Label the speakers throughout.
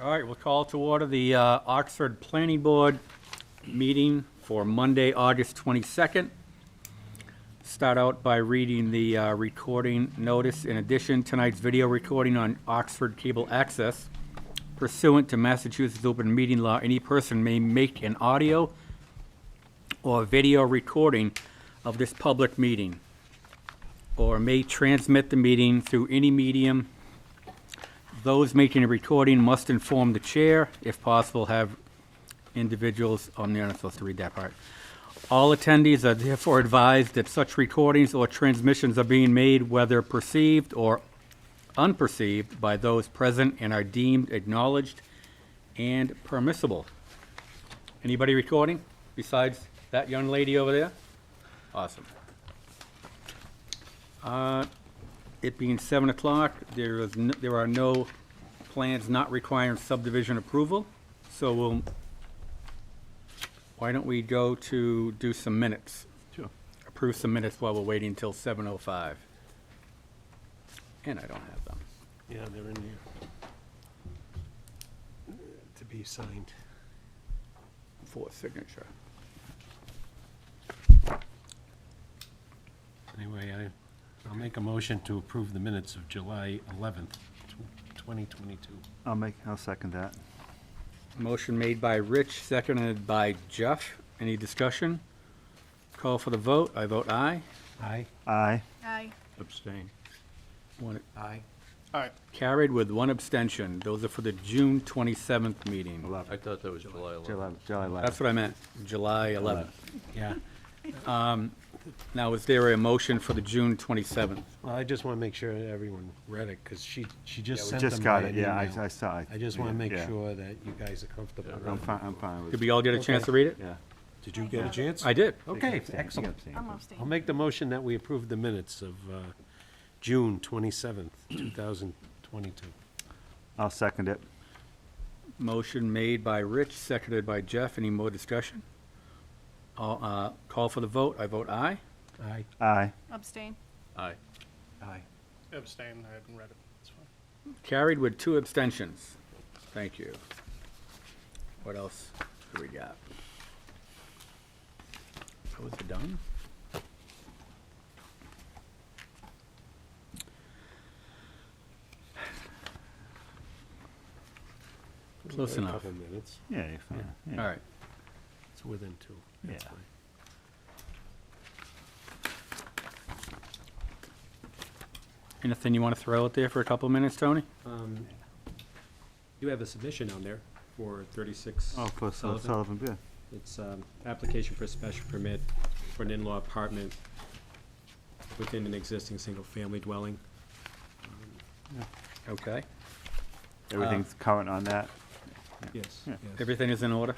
Speaker 1: All right, we'll call to order the uh, Oxford Planning Board meeting for Monday, August 22nd. Start out by reading the uh, recording notice. In addition, tonight's video recording on Oxford Cable Access pursuant to Massachusetts Open Meeting Law, any person may make an audio or video recording of this public meeting or may transmit the meeting through any medium those making a recording must inform the chair, if possible, have individuals, oh, I'm not supposed to read that part. All attendees are therefore advised that such recordings or transmissions are being made, whether perceived or unperceived, by those present and are deemed acknowledged and permissible. Anybody recording besides that young lady over there? Awesome. It being seven o'clock, there is, n- there are no plans not requiring subdivision approval, so we'll, why don't we go to do some minutes?
Speaker 2: Sure.
Speaker 1: Approve some minutes while we're waiting until seven oh five. And I don't have them.
Speaker 2: Yeah, they're in here. To be signed.
Speaker 1: for signature.
Speaker 2: Anyway, I, I'll make a motion to approve the minutes of July 11th, tw- 2022.
Speaker 3: I'll make, I'll second that.
Speaker 1: Motion made by Rich, seconded by Jeff. Any discussion? Call for the vote. I vote aye.
Speaker 2: Aye.
Speaker 3: Aye.
Speaker 4: Aye.
Speaker 1: Abstain. One,
Speaker 2: Aye.
Speaker 1: Carried with one abstention. Those are for the June 27th meeting.
Speaker 3: Eleven.
Speaker 5: I thought that was July 11th.
Speaker 3: July, July
Speaker 1: That's
Speaker 3: eleventh.
Speaker 1: what I meant, July 11th.
Speaker 2: Yeah.
Speaker 1: Now, is there a motion for the June 27th?
Speaker 2: Well, I just want to make sure that everyone read it, because she, she just
Speaker 3: We
Speaker 2: sent them
Speaker 3: just got
Speaker 2: by
Speaker 3: it,
Speaker 2: an
Speaker 3: yeah,
Speaker 2: email.
Speaker 3: I, I saw it.
Speaker 2: I just want to
Speaker 3: Yeah,
Speaker 2: make
Speaker 3: yeah.
Speaker 2: sure that you guys are comfortable.
Speaker 3: I'm
Speaker 2: with it.
Speaker 3: fine, I'm fine with
Speaker 1: Did
Speaker 3: it.
Speaker 1: we all get a chance to read it?
Speaker 3: Yeah.
Speaker 2: Did you get a chance?
Speaker 1: I did.
Speaker 2: Okay,
Speaker 3: Abstain, you
Speaker 2: excellent.
Speaker 3: abstain.
Speaker 4: I'm abstaining.
Speaker 2: I'll make the motion that we approve the minutes of uh, June 27th, 2022.
Speaker 3: I'll second it.
Speaker 1: Motion made by Rich, seconded by Jeff. Any more discussion? All, uh, Call for the vote. I vote aye.
Speaker 2: Aye.
Speaker 3: Aye.
Speaker 4: Abstain.
Speaker 5: Aye.
Speaker 2: Aye.
Speaker 6: Abstain, I haven't read it, it's fine.
Speaker 1: Carried with two abstentions. Thank you. What else do we got? Was it done? Close
Speaker 2: A
Speaker 1: enough.
Speaker 2: Couple minutes.
Speaker 3: Yeah, you're fine. Yeah.
Speaker 1: All right.
Speaker 2: It's within two. That's
Speaker 3: Yeah.
Speaker 2: fine.
Speaker 1: Anything you want to throw out there for a couple minutes, Tony?
Speaker 7: Um, You have a submission on there for 36
Speaker 3: Oh, for Sul-
Speaker 7: Sullivan.
Speaker 3: Sullivan, yeah.
Speaker 7: It's um, application for a special permit for an in-law apartment within an existing single-family dwelling.
Speaker 1: Okay.
Speaker 3: Everything's current on that.
Speaker 7: Yes,
Speaker 3: Yeah.
Speaker 7: yes,
Speaker 1: Everything is in order?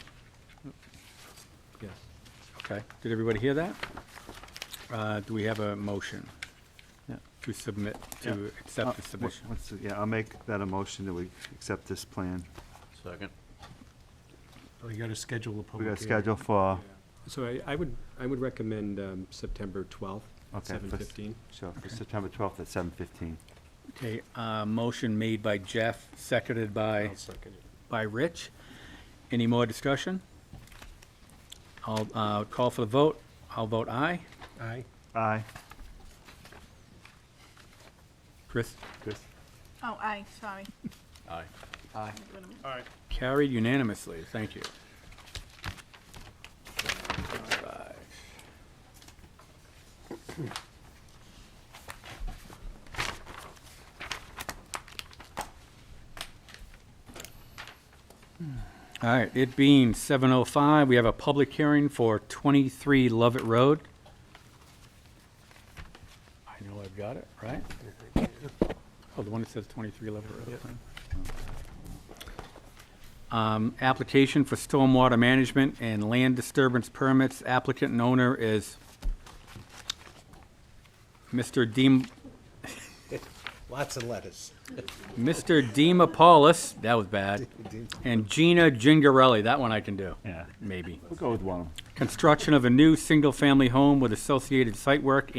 Speaker 7: yes.
Speaker 1: Okay. Did everybody hear that? Uh, Do we have a motion
Speaker 3: Yeah.
Speaker 1: to submit,
Speaker 3: Yeah.
Speaker 1: to
Speaker 3: Uh,
Speaker 1: accept the
Speaker 3: wha-
Speaker 1: submission?
Speaker 3: what's the- Yeah, I'll make that a motion that we accept this plan.
Speaker 5: Second.
Speaker 2: Oh, you gotta schedule a
Speaker 3: We
Speaker 2: public
Speaker 3: got a
Speaker 2: hearing.
Speaker 3: schedule for,
Speaker 7: So I- I would, I would recommend um, September 12th, at
Speaker 3: Okay, first-
Speaker 7: 7:15.
Speaker 3: sure, for September twelfth at seven fifteen.
Speaker 1: Okay, uh, motion made by Jeff, seconded by,
Speaker 2: I'll second it.
Speaker 1: by Rich. Any more discussion? I'll uh, call for the vote. I'll vote aye.
Speaker 2: Aye.
Speaker 3: Aye.
Speaker 1: Chris,
Speaker 3: Chris?
Speaker 4: Oh, aye, sorry.
Speaker 5: Aye.
Speaker 3: Aye.
Speaker 4: Wait a minute.
Speaker 6: All right,
Speaker 1: carried unanimously. Thank you. All right, it being 7:05, we have a public hearing for 23 Lovett Road. I know I've got it, right? Oh, the one that says 23 Lovett Road. Um, Application for stormwater management and land disturbance permits. Applicant and owner is Mr. Deem,
Speaker 2: Lots of letters.
Speaker 1: Mr. Demopolis, that was bad, and Gina Gingarelli, that one I can do,
Speaker 3: Yeah,
Speaker 1: maybe.
Speaker 3: we'll go with one.
Speaker 1: Construction of a new single-family home with associated site work